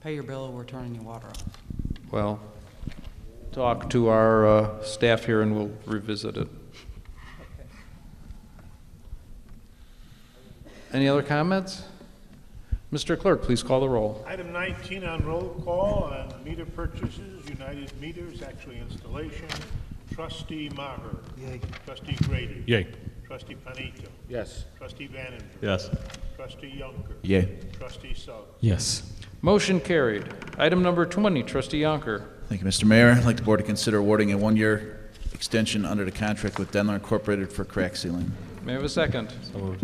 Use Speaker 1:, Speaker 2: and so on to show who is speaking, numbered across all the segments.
Speaker 1: pay your bill, we're turning your water off.
Speaker 2: Well, talk to our uh, staff here and we'll revisit it. Any other comments? Mr. Clerk, please call the roll.
Speaker 3: Item 19 on roll call on meter purchases, United Meters, actually installation. Trustee Maher. Yay. Trustee Grady.
Speaker 4: Yay.
Speaker 3: Trustee Panito.
Speaker 5: Yes.
Speaker 3: Trustee Vanenberg.
Speaker 4: Yes.
Speaker 3: Trustee Yonker.
Speaker 5: Yay.
Speaker 3: Trustee Suggs.
Speaker 4: Yes.
Speaker 2: Motion carried. Item number 20, Trustee Yonker.
Speaker 6: Thank you, Mr. Mayor. I'd like the board to consider awarding a one-year extension under the contract with Denler Incorporated for crack sealing.
Speaker 2: May I have a second?
Speaker 6: The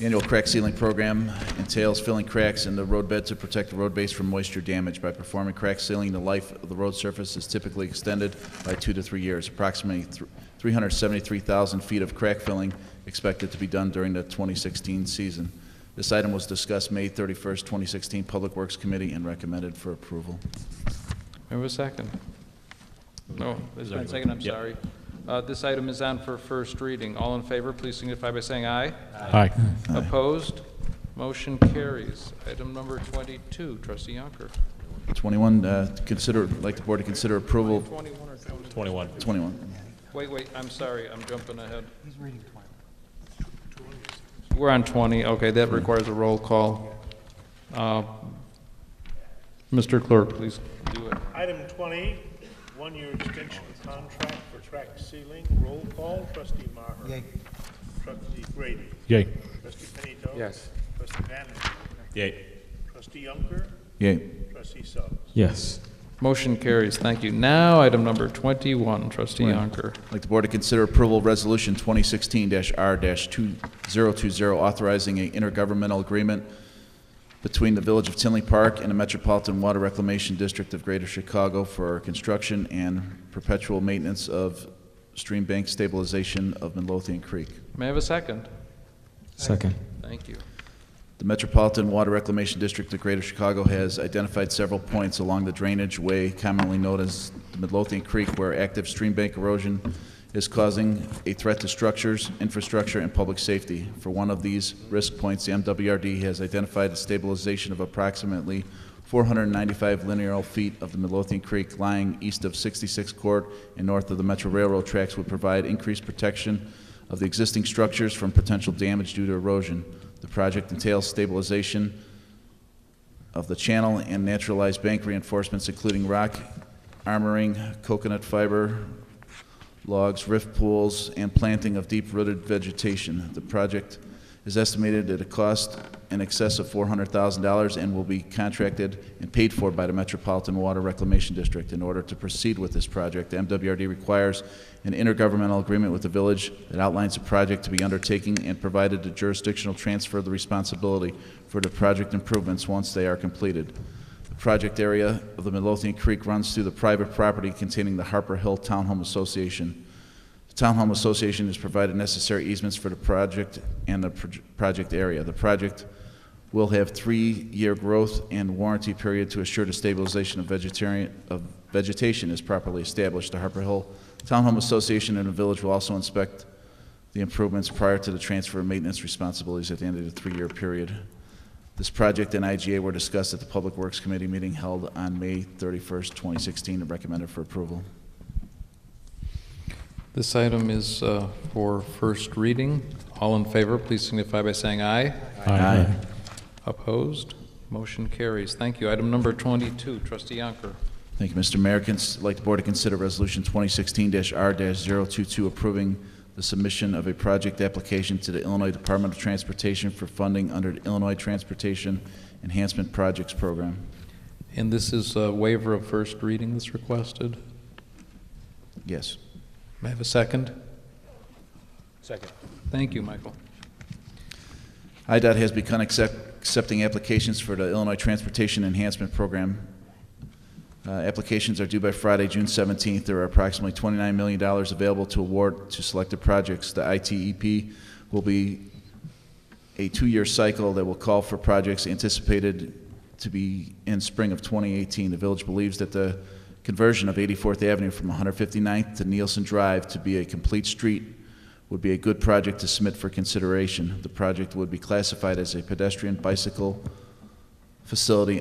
Speaker 6: Annual crack sealing program entails filling cracks in the roadbed to protect the road base from moisture damage. By performing crack sealing, the life of the road surface is typically extended by two to three years. Approximately thr- 373,000 feet of crack filling expected to be done during the 2016 season. This item was discussed May 31st, 2016 Public Works Committee and recommended for approval.
Speaker 2: May I have a second? No, there's been a second, I'm
Speaker 4: Yeah.
Speaker 2: sorry. Uh, This item is on for first reading. All in favor, please signify by saying aye.
Speaker 4: Aye.
Speaker 2: Opposed? Motion carries. Item number 22, Trustee Yonker.
Speaker 6: 21, uh, consider, I'd like the board to consider approval,
Speaker 2: 21 or 22?
Speaker 4: 21.
Speaker 6: 21.
Speaker 2: Wait, wait, I'm sorry, I'm jumping ahead. He's reading 20. We're on 20, okay, that requires a roll call. Uh, Mr. Clerk, please do it.
Speaker 3: Item 20, one-year extension contract for track ceiling. Roll call, Trustee Maher.
Speaker 1: Yay.
Speaker 3: Trustee Grady.
Speaker 4: Yay.
Speaker 3: Trustee Panito.
Speaker 5: Yes.
Speaker 3: Trustee Vanenberg.
Speaker 4: Yay.
Speaker 3: Trustee Yonker.
Speaker 6: Yay.
Speaker 3: Trustee Suggs.
Speaker 4: Yes.
Speaker 2: Motion carries, thank you. Now, item number 21, Trustee Yonker.
Speaker 6: I'd like the board to consider approval of Resolution 2016-R-2020, authorizing an intergovernmental agreement between the Village of Tinley Park and the Metropolitan Water Reclamation District of Greater Chicago for construction and perpetual maintenance of stream bank stabilization of Midlothian Creek.
Speaker 2: May I have a second?
Speaker 4: Second.
Speaker 2: Thank you.
Speaker 6: The Metropolitan Water Reclamation District of Greater Chicago has identified several points along the drainage way commonly known as the Midlothian Creek where active stream bank erosion is causing a threat to structures, infrastructure, and public safety. For one of these risk points, the MWRD has identified the stabilization of approximately 495 linear feet of the Midlothian Creek lying east of 66 Court and north of the Metro Railroad tracks would provide increased protection of the existing structures from potential damage due to erosion. The project entails stabilization of the channel and naturalized bank reinforcements, including rock armoring, coconut fiber, logs, rift pools, and planting of deep-rooted vegetation. The project is estimated at a cost in excess of $400,000 and will be contracted and paid for by the Metropolitan Water Reclamation District. In order to proceed with this project, the MWRD requires an intergovernmental agreement with the village that outlines the project to be undertaking and provided the jurisdictional transfer of the responsibility for the project improvements once they are completed. The project area of the Midlothian Creek runs through the private property containing the Harper Hill Townhome Association. The Townhome Association has provided necessary easements for the project and the proj- project area. The project will have three-year growth and warranty period to assure the stabilization of vegetarian, of vegetation is properly established. The Harper Hill Townhome Association and the village will also inspect the improvements prior to the transfer of maintenance responsibilities at the end of the three-year period. This project and IGA were discussed at the Public Works Committee meeting held on May 31st, 2016, and recommended for approval.
Speaker 2: This item is uh, for first reading. All in favor, please signify by saying aye.
Speaker 6: Aye.
Speaker 2: Opposed? Motion carries. Thank you. Item number 22, Trustee Yonker.
Speaker 6: Thank you, Mr. Mayor. Cons- I'd like the board to consider Resolution 2016-R-022 approving the submission of a project application to the Illinois Department of Transportation for funding under the Illinois Transportation Enhancement Projects Program.
Speaker 2: And this is a waiver of first reading that's requested.
Speaker 6: Yes.
Speaker 2: May I have a second?
Speaker 5: Second.
Speaker 2: Thank you, Michael.
Speaker 6: IDOT has begun accept- accepting applications for the Illinois Transportation Enhancement Program. Uh, Applications are due by Friday, June 17th. There are approximately $29 million available to award to selected projects. The ITEP will be a two-year cycle that will call for projects anticipated to be in spring of 2018. The village believes that the conversion of 84th Avenue from 159th to Nielsen Drive to be a complete street would be a good project to submit for consideration. The project would be classified as a pedestrian bicycle facility